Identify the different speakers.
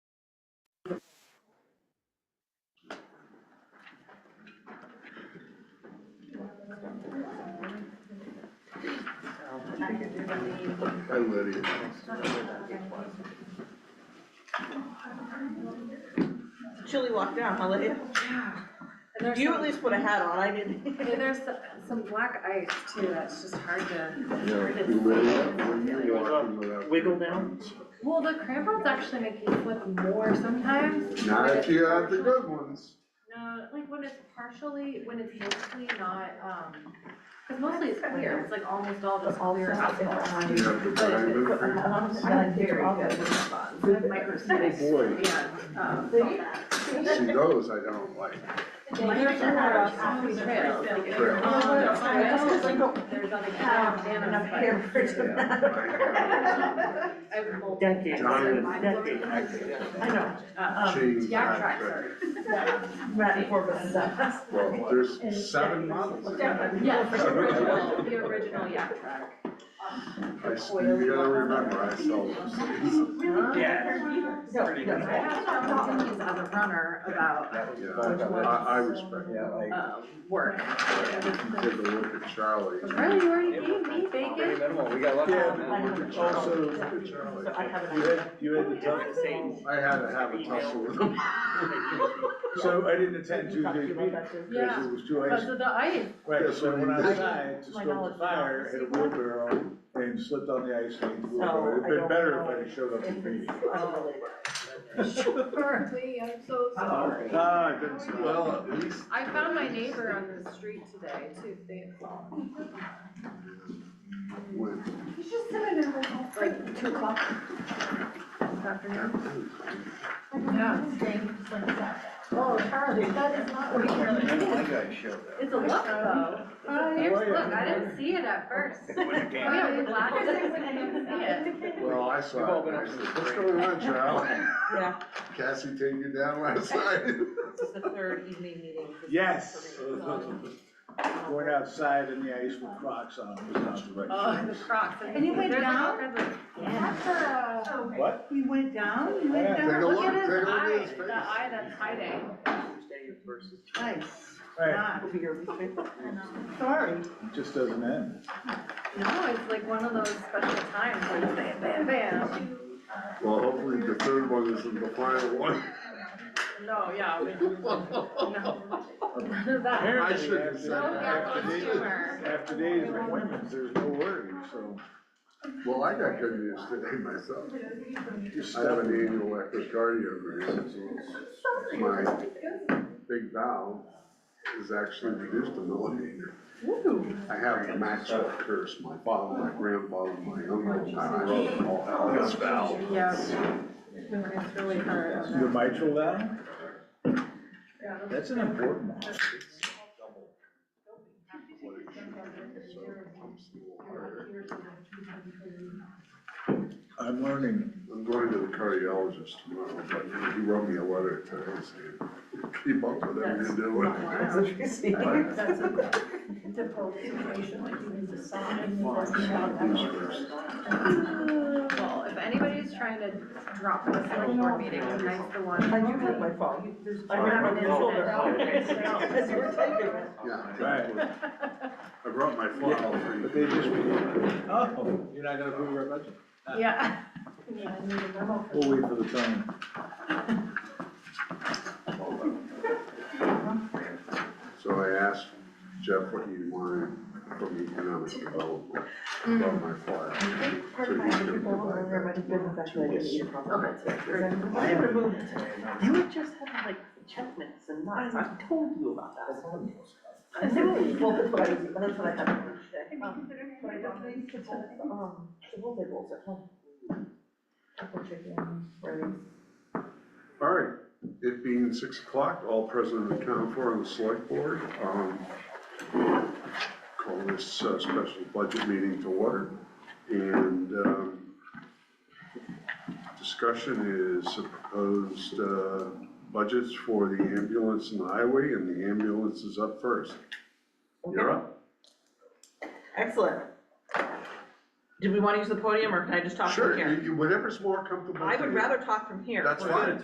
Speaker 1: Hi Lydia.
Speaker 2: Chilly walk down, huh, Lydia?
Speaker 3: And there's
Speaker 2: You
Speaker 3: some,
Speaker 2: at least put a hat on, I didn't.
Speaker 3: and there's some- some black ice too, that's just hard to.
Speaker 1: Yeah, you ready? When you walking without-
Speaker 4: Wiggle down?
Speaker 3: Well, the crampons actually make you flip more sometimes.
Speaker 1: Not
Speaker 3: when
Speaker 1: if you
Speaker 3: it's
Speaker 1: have the
Speaker 3: partial-
Speaker 1: good ones.
Speaker 3: No, like when it's partially, when it's mostly not, um, cause mostly it's clear, it's like almost all just clear asphalt.
Speaker 1: You have to buy them.
Speaker 3: Microscopic,
Speaker 1: Boy.
Speaker 3: yeah, um, salt bags.
Speaker 1: See, those I don't like.
Speaker 3: There's so many trails, like, it's,
Speaker 1: Trails.
Speaker 3: um,
Speaker 2: Yeah.
Speaker 3: trails, like, there's other
Speaker 2: Have enough
Speaker 3: bananas, but-
Speaker 2: hair for tonight.
Speaker 1: Yeah.
Speaker 3: I have multiple
Speaker 4: Decades,
Speaker 3: types of
Speaker 1: John-
Speaker 3: lines.
Speaker 2: I know,
Speaker 3: Uh,
Speaker 2: um,
Speaker 1: Jeez,
Speaker 3: Yak
Speaker 1: I'm
Speaker 3: tracks
Speaker 1: sorry.
Speaker 3: are,
Speaker 2: Matt and Corbin and stuff.
Speaker 1: Well, there's seven models in that.
Speaker 3: yeah, the original, the original yak track.
Speaker 1: I s- You gotta remember, I sold them.
Speaker 4: Yeah.
Speaker 2: No,
Speaker 4: Pretty
Speaker 2: no.
Speaker 4: good.
Speaker 3: I have talked to Denise as a runner about,
Speaker 1: Yeah, I, I respect that.
Speaker 3: um, work.
Speaker 1: If you Take a look at Charlie.
Speaker 3: Really, you already gave me bacon?
Speaker 5: minimal, we got lucky
Speaker 1: Yeah,
Speaker 5: on
Speaker 1: but
Speaker 5: that.
Speaker 1: look at Charlie, look at Charlie.
Speaker 2: So I have an
Speaker 6: You
Speaker 2: idea.
Speaker 6: had, you had the
Speaker 4: Don't
Speaker 6: time,
Speaker 4: say-
Speaker 1: I had to have a tussle with him.
Speaker 6: so I didn't attend
Speaker 2: We talked to
Speaker 6: Tuesday's
Speaker 2: you
Speaker 6: meeting,
Speaker 2: about that too.
Speaker 6: because it was too
Speaker 3: Because
Speaker 6: icy.
Speaker 3: of the ice,
Speaker 6: Right,
Speaker 1: Yes,
Speaker 6: so I went
Speaker 1: I did.
Speaker 6: outside to
Speaker 2: My
Speaker 6: stoke
Speaker 2: knowledge
Speaker 6: the fire, hit a wheelbarrow, and slipped on the ice and blew
Speaker 2: So,
Speaker 6: away.
Speaker 2: I
Speaker 6: It'd been
Speaker 2: don't
Speaker 6: better if
Speaker 2: know
Speaker 6: I had showed up to
Speaker 2: If
Speaker 6: the
Speaker 2: it's
Speaker 6: meeting.
Speaker 3: I'm so sorry.
Speaker 6: No, I didn't see that.
Speaker 1: Well, at least.
Speaker 3: I found my neighbor on the street today, too, they,
Speaker 1: When-
Speaker 3: like, two o'clock this afternoon. Yeah.
Speaker 2: Oh, Charlie, that is not what you're really.
Speaker 5: One guy showed up.
Speaker 3: It's a look, though. It's
Speaker 7: Uh,
Speaker 3: a fierce look, I didn't see it at first.
Speaker 5: It was a
Speaker 3: Oh,
Speaker 5: game.
Speaker 3: yeah, we laughed at it when I didn't see it.
Speaker 1: Well, I
Speaker 5: We've
Speaker 1: saw it,
Speaker 5: all
Speaker 1: and
Speaker 5: been
Speaker 1: I
Speaker 5: up to the
Speaker 1: said, what's
Speaker 5: break."
Speaker 1: going on, Charlie?
Speaker 2: Yeah,
Speaker 1: Cassie taking you down last night?
Speaker 2: this is the third evening meeting. This is
Speaker 6: Yes.
Speaker 2: for me, so, um,
Speaker 6: Going outside in the ice with Crocs on was not the
Speaker 3: Oh,
Speaker 6: right
Speaker 3: the
Speaker 6: choice.
Speaker 3: Crocs.
Speaker 7: And you went
Speaker 3: There's a
Speaker 7: down?
Speaker 3: Croc as a-
Speaker 6: What?
Speaker 7: You went down, you
Speaker 6: Yeah,
Speaker 7: went
Speaker 1: Take a
Speaker 7: down,
Speaker 1: look,
Speaker 3: Look
Speaker 1: take
Speaker 3: at
Speaker 1: a
Speaker 3: his
Speaker 1: look at
Speaker 3: eye,
Speaker 1: his
Speaker 3: the
Speaker 1: face.
Speaker 3: eye that's hiding.
Speaker 4: Tuesday versus
Speaker 7: nice,
Speaker 6: Right,
Speaker 7: Ah,
Speaker 2: Will be your least favorite.
Speaker 7: sorry.
Speaker 6: it just doesn't end.
Speaker 3: No, it's like one of those special times where you say bam, bam.
Speaker 1: Well, hopefully the third one isn't the final one.
Speaker 3: No, yeah, we- no. None of that.
Speaker 1: I shouldn't have
Speaker 6: Apparently,
Speaker 1: said that.
Speaker 3: No, yeah,
Speaker 6: after
Speaker 3: it's
Speaker 6: these-
Speaker 3: humor.
Speaker 6: After days of appointments, there's no worry, so.
Speaker 1: Well, I got good news today myself.
Speaker 6: just
Speaker 1: I have
Speaker 6: stuff.
Speaker 1: an annual echocardiogram. My big valve is actually reduced a millimeter. I have the Maxwell curse, my father, my grandfather, my uncle, I love them all, have this valve.
Speaker 3: Yeah. It's really hard on
Speaker 6: The
Speaker 3: that.
Speaker 6: mitral valve? That's an important one.
Speaker 1: So it pumps a little harder.
Speaker 6: I'm learning.
Speaker 1: I'm going to the cardiologist tomorrow, but he wrote me a letter today saying, keep up with him, you're doing.
Speaker 2: That's interesting.
Speaker 7: That's a difficult situation, like you need to sign and you want to shout
Speaker 3: Well, if anybody's trying to drop this little board meeting, tonight's the one.
Speaker 2: I do have my phone. I
Speaker 3: have
Speaker 2: grabbed
Speaker 3: an
Speaker 2: it and
Speaker 3: incident.
Speaker 2: shoulder. As you were typing.
Speaker 1: Yeah.
Speaker 6: Right.
Speaker 1: I brought my phone out for you.
Speaker 6: But they just, oh, you're not gonna approve our budget?
Speaker 3: Yeah.
Speaker 6: We'll wait for the time.
Speaker 1: So I asked Jeff what he wanted from economic development, about my file.
Speaker 2: I think part of my other people who were there might have been actually I didn't need a problem. I have removed it. You would just have like checklists and knots, I told you about that. I said, well, that's what I, that's what I had on today. Um, But I don't think it's, um, the whole big rolls at home. Apple chicken, rice.
Speaker 1: All right, it being six o'clock, all president and town for on the select board, um, call this uh, special budget meeting to order. And, um, discussion is the proposed, uh, budgets for the ambulance and the highway, and the ambulance is up first. You're up?
Speaker 2: Excellent. Do we wanna use the podium or can I just talk from
Speaker 1: Sure,
Speaker 2: here?
Speaker 1: you- you- whatever's more comfortable
Speaker 2: I
Speaker 1: for
Speaker 2: would
Speaker 1: you.
Speaker 2: rather talk from here.
Speaker 1: That's
Speaker 2: We're good.
Speaker 1: fine.